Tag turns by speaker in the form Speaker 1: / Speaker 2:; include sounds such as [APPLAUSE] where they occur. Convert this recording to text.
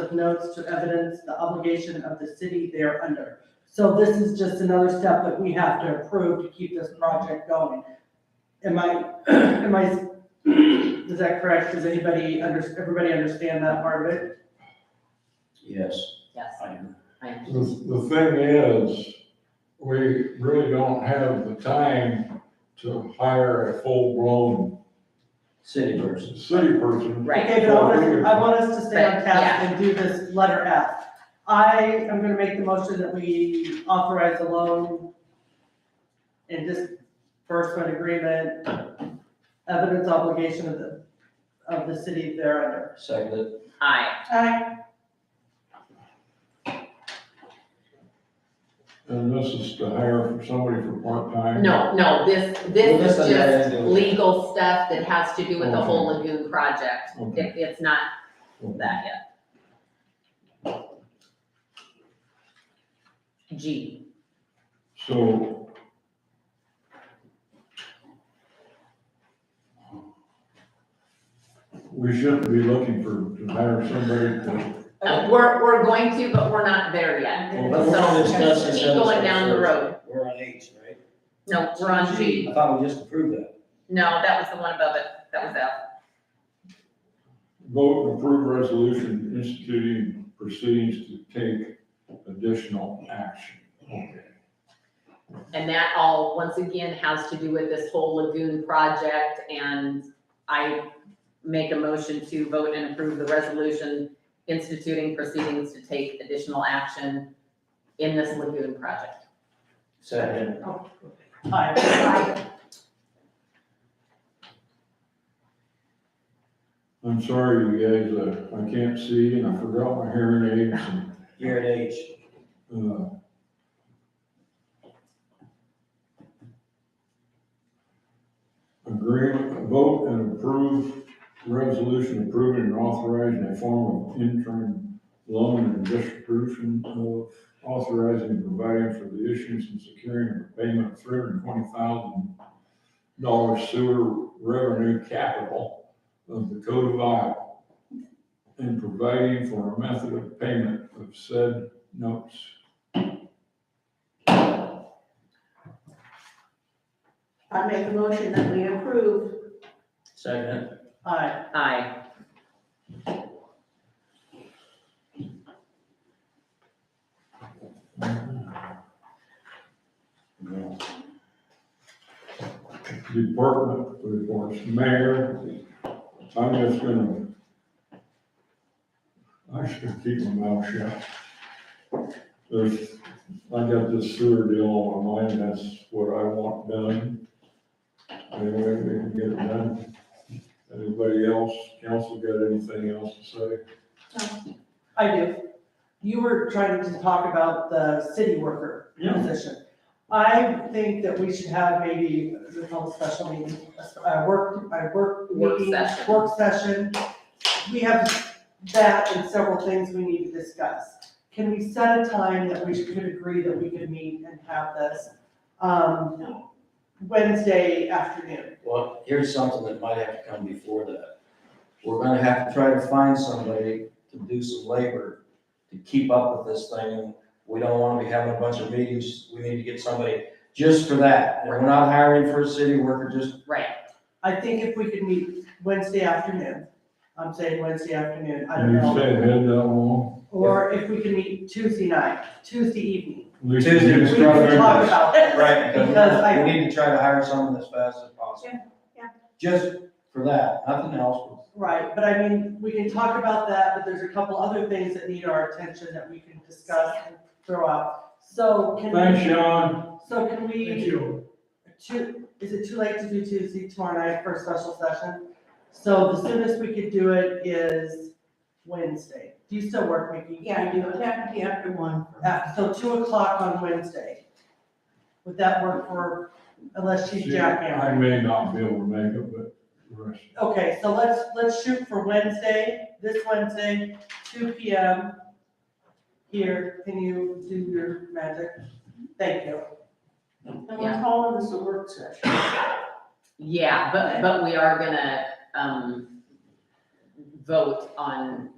Speaker 1: with notes to evidence the obligation of the city they're under. So this is just another step that we have to approve to keep this project going. Am I, [CLEARS THROAT] am I, is that correct? Does anybody under, everybody understand that part of it?
Speaker 2: Yes,
Speaker 3: Yes,
Speaker 2: I do.
Speaker 3: I am.
Speaker 4: The, the thing is, we really don't have the time to hire a full-blown
Speaker 2: City person.
Speaker 4: city person.
Speaker 3: Right.
Speaker 1: Okay, but I want us, I want us to stay on task and do this letter F. I am gonna make the motion that we authorize a loan and disbursement agreement, evidence obligation of the, of the city thereunder.
Speaker 2: Seconded.
Speaker 3: Aye.
Speaker 1: Aye.
Speaker 4: And this is to hire for somebody for part-time.
Speaker 3: No, no, this,
Speaker 2: Well,
Speaker 3: this
Speaker 2: this is
Speaker 3: is
Speaker 2: that
Speaker 3: just
Speaker 2: end of it.
Speaker 3: legal stuff that has to do with the whole
Speaker 4: Okay.
Speaker 3: lagoon project.
Speaker 4: Okay.
Speaker 3: It, it's not that yet. G,
Speaker 4: So. We shouldn't be looking for, to hire somebody
Speaker 3: Uh, we're, we're going to, but we're not there yet.
Speaker 2: Well,
Speaker 3: So,
Speaker 2: let's not discuss this
Speaker 3: keep going
Speaker 2: other
Speaker 3: down the
Speaker 2: stuff first.
Speaker 3: road.
Speaker 2: We're on H, right?
Speaker 3: No, we're on G.
Speaker 2: I thought we just approved that.
Speaker 3: No, that was the one above it. That was F.
Speaker 4: to vote and approve resolution instituting proceedings to take additional action. Okay.
Speaker 3: And that all, once again, has to do with this whole lagoon project, and I make a motion to vote and approve the resolution instituting proceedings to take additional action in this lagoon project.
Speaker 2: Second.
Speaker 1: Aye.
Speaker 4: I'm sorry, you guys, uh, I can't see and I forgot my hearing aids and
Speaker 2: You're at H.
Speaker 4: Uh, Agreement, vote and approve resolution approving and authorizing a form of interim loan and distribution of authorizing and providing for the issuance and securing of payment of three hundred and twenty thousand dollar sewer revenue capital of the Code of Iowa and providing for a method of payment of said notes.
Speaker 5: I make a motion that we approve.
Speaker 2: Second.
Speaker 1: Aye.
Speaker 3: Aye.
Speaker 2: No.
Speaker 4: Department reports, mayor, I'm just gonna. I should keep my mouth shut. There's, I got this sewer deal on my mind, that's what I want done. Anyway, we can get it done. Anybody else, council got anything else to say?
Speaker 1: I do. You were trying to talk about the city worker
Speaker 4: Yeah.
Speaker 1: position. I think that we should have maybe, we call it special meeting, a work, a work
Speaker 3: Work
Speaker 1: meeting,
Speaker 3: session.
Speaker 1: work session. We have that and several things we need to discuss. Can we set a time that we could agree that we could meet and have this? Um, Wednesday afternoon.
Speaker 2: Well, here's something that might have to come before that. We're gonna have to try to find somebody to do some labor to keep up with this thing. We don't wanna be having a bunch of meetings. We need to get somebody just for that. And We're not hiring for a city worker, just
Speaker 3: Right.
Speaker 1: I think if we could meet Wednesday afternoon, I'm saying Wednesday afternoon, I don't
Speaker 4: You
Speaker 1: know.
Speaker 4: said head that long.
Speaker 1: Or if we can meet Tuesday night, Tuesday evening.
Speaker 4: Lisa,
Speaker 2: Tuesday
Speaker 4: you
Speaker 2: was
Speaker 1: We
Speaker 2: Just
Speaker 4: said-
Speaker 2: try to
Speaker 1: can talk about this.
Speaker 2: Right,
Speaker 1: Because I-
Speaker 2: because we need to try to hire someone as fast as possible.
Speaker 5: Yeah, yeah.
Speaker 2: Just for that, nothing else.
Speaker 1: Right, but I mean, we can talk about that, but there's a couple other things that need our attention that we can discuss and throw out. So can
Speaker 4: Thanks,
Speaker 1: we,
Speaker 4: Sean.
Speaker 1: so can we?
Speaker 6: Thank you.
Speaker 1: Tu- is it too late to do Tuesday tomorrow night for a special session? So the soonest we could do it is Wednesday. Do you still work, Mickey?
Speaker 5: Yeah, you would have to be after one.
Speaker 1: Uh, so two o'clock on Wednesday. Would that work for, unless she's
Speaker 4: See,
Speaker 1: jackhammering?
Speaker 4: I may not be able to make it, but the rest.
Speaker 1: Okay, so let's, let's shoot for Wednesday, this Wednesday, two P M. Here, can you do your magic? Thank you.
Speaker 5: And we're calling this a work session.
Speaker 3: Yeah, but, but we are gonna, um, vote on